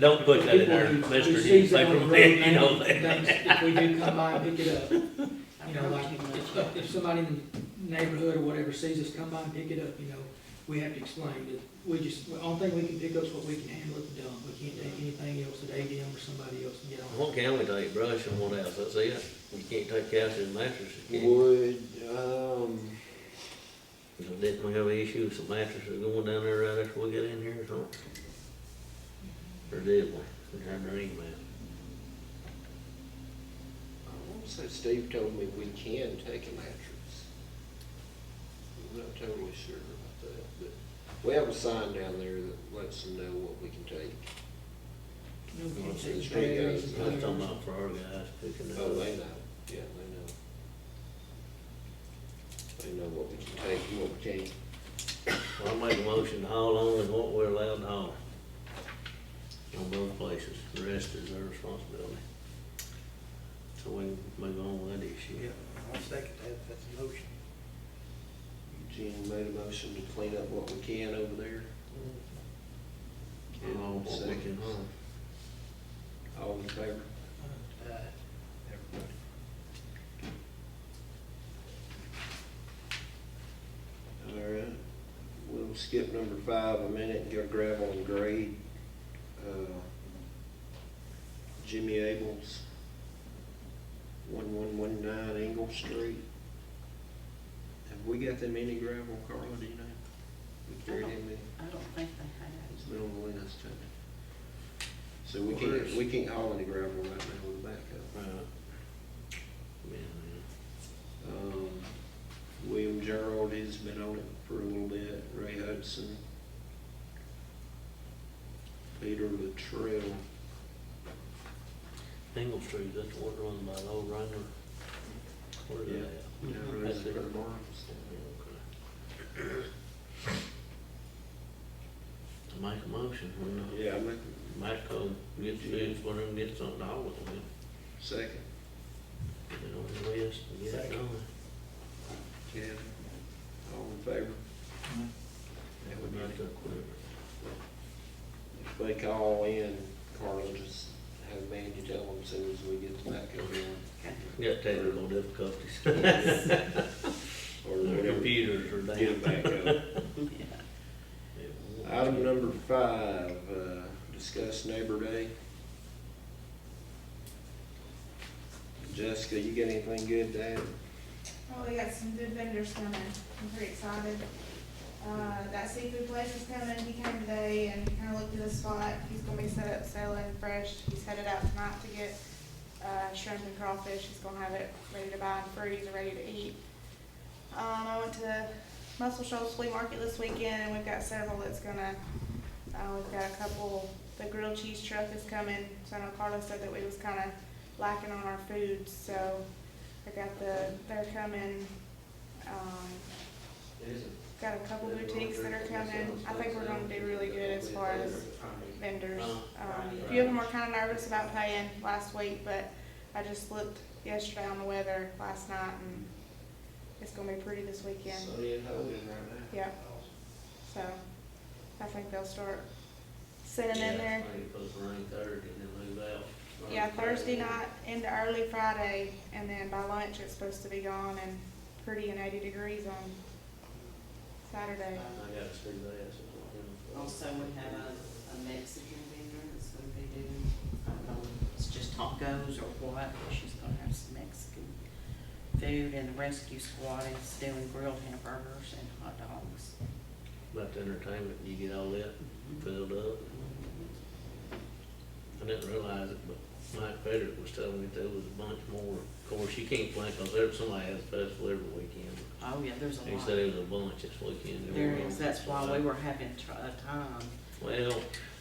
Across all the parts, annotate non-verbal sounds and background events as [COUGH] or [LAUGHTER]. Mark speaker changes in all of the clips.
Speaker 1: Don't put that in there,
Speaker 2: People who- who
Speaker 1: Mr.
Speaker 2: sees that on the road
Speaker 1: Newspaperman, [LAUGHS] you
Speaker 2: now
Speaker 1: know
Speaker 2: and
Speaker 1: that.
Speaker 2: thinks If we do come by and pick it up, you know, like, if, if somebody in the neighborhood or whatever sees us come by and pick it up, you know, we have to explain that we just, the only thing we can pick up is what we can handle at the dump. We can't take anything else at ADM or somebody else and get on.
Speaker 1: What can we take, brush and what else, that's it, you can't take couches and mattresses, can you?
Speaker 3: Would, um,
Speaker 1: You know, Didn't we have an issue with some mattresses going down there right after we got in here or something? Or did we, we had our email,
Speaker 3: I want to say Steve told me we can take a mattress. I'm not totally sure about that, but we have a sign down there that lets them know what we can take.
Speaker 2: No, we can't
Speaker 3: Obviously,
Speaker 2: take
Speaker 3: the street
Speaker 2: batteries
Speaker 3: guys-
Speaker 2: and
Speaker 1: that's talking
Speaker 2: whatever.
Speaker 1: about for our guys picking
Speaker 3: Oh,
Speaker 1: up.
Speaker 3: they know, yeah, they know. They know what we can take and what we can't.
Speaker 1: Well, I make a motion to haul only what we're allowed to haul. On both places, the rest is their responsibility. So we can move on with that issue.
Speaker 4: Yeah, I'll second that, if that's a motion.
Speaker 3: Jen made a motion to clean up what we can over there.
Speaker 1: And
Speaker 3: Oh,
Speaker 1: all what we can haul.
Speaker 3: All in favor?
Speaker 4: Uh, everybody.
Speaker 3: All right, we'll skip number five a minute and go gravel and grade. Uh, Jimmy Abels, one one one nine Engle Street. Have we got them any gravel, Carla, do you know? We carried them in,
Speaker 5: I don't think they
Speaker 3: it's been on the list, haven't it? So we can't, we can't haul any gravel right now with the backhoe.
Speaker 1: Right. Yeah, yeah.
Speaker 3: Um, William Gerald has been on it for a little bit, Ray Hudson. Peter Latrell,
Speaker 1: Engle Street, that's the one run by the old Wrangler. Where is
Speaker 3: Yeah.
Speaker 1: that?
Speaker 3: you know,
Speaker 1: That's it.
Speaker 3: Rosenberg Barnes.
Speaker 1: To make a motion, when
Speaker 3: Yeah, I make
Speaker 1: the Matco gets bids, one of them gets something to haul with them,
Speaker 3: a second,
Speaker 1: put it on the list and get it
Speaker 4: Second.
Speaker 1: done.
Speaker 3: Kevin, all in favor?
Speaker 1: That would make up for it.
Speaker 3: If they call in, Carla, just have Mandy tell them as soon as we get the backhoe in,
Speaker 1: [LAUGHS] You got technical difficulties.
Speaker 3: or
Speaker 1: Their
Speaker 3: whatever.
Speaker 1: computers are down.
Speaker 3: Get a backhoe.
Speaker 5: had. Yeah.
Speaker 3: Item number five, uh, discuss neighbor day. Jessica, you got anything good to add?
Speaker 6: Well, Oh, we got some good vendors coming, I'm pretty excited. Uh, that seafood place is coming, he came today and kinda looked at the spot, he's gonna be set up selling fresh, he's headed out tonight to get, uh, shrimp and crawfish, he's gonna have it ready to buy and freeze and ready to eat. Um, I went to Muscle Shoals Flea Market this weekend, and we've got several that's gonna, uh, we've got a couple, the grilled cheese truck is coming, so I know Carlos said that we was kinda lacking on our food, so I got the, they're coming, um, got a couple boutiques that are coming. I think we're gonna do really good as far as vendors. Um, a few of them were kinda nervous about paying last week, but I just looked yesterday on the weather last night and it's gonna be pretty this weekend,
Speaker 3: Sunny and holy right now.
Speaker 6: yeah, so I think they'll start sitting in there.
Speaker 1: Maybe put it rain Thursday and then move out.
Speaker 6: Yeah, Thursday night into early Friday, and then by lunch, it's supposed to be gone and pretty and eighty degrees on
Speaker 1: I
Speaker 6: Saturday.
Speaker 1: I gotta see that. so, you know.
Speaker 5: Uh, Also, we have a, a Mexican vendor that's gonna be doing, I don't know, if it's just tacos or what, but she's gonna have some Mexican food, and the rescue squad is doing grilled hamburgers and hot dogs.
Speaker 1: About the entertainment, you get all that filled up. I didn't realize it, but Mike Frederick was telling me there was a bunch more. Of course, you can't plan, cause there, somebody has a festival every weekend.
Speaker 5: Oh, yeah, there's a
Speaker 1: He
Speaker 5: lot.
Speaker 1: said it was a bunch this weekend.
Speaker 5: There is, that's why we were having tr- a time
Speaker 1: Well,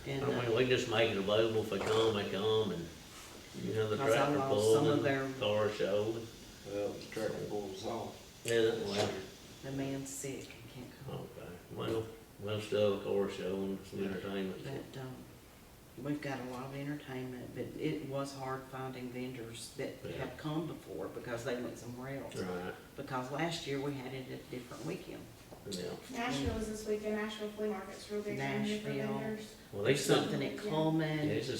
Speaker 5: in
Speaker 1: I
Speaker 5: the.
Speaker 1: mean, we just make it available if they come, they come and, you know, the
Speaker 5: Cause I
Speaker 1: tractor
Speaker 5: lost some
Speaker 1: pull
Speaker 5: of
Speaker 1: and
Speaker 5: their-
Speaker 1: car show.
Speaker 3: Well, the tractor pulls off.
Speaker 1: Yeah, that one.
Speaker 5: The man's sick, he can't come,
Speaker 1: Okay, well, we'll still have a car show and some entertainment.
Speaker 5: but, um, we've got a lot of entertainment, but it was hard finding vendors that
Speaker 1: Yeah.
Speaker 5: have come before because they went somewhere else.
Speaker 1: Right,
Speaker 5: Because last year we had it at a different weekend,
Speaker 1: Yeah.
Speaker 6: Nashville is this weekend, Nashville Flea Market's real big, and different
Speaker 5: Nashville.
Speaker 6: vendors.
Speaker 1: Well, they sent,
Speaker 5: Something at Coleman.
Speaker 1: yeah, it's a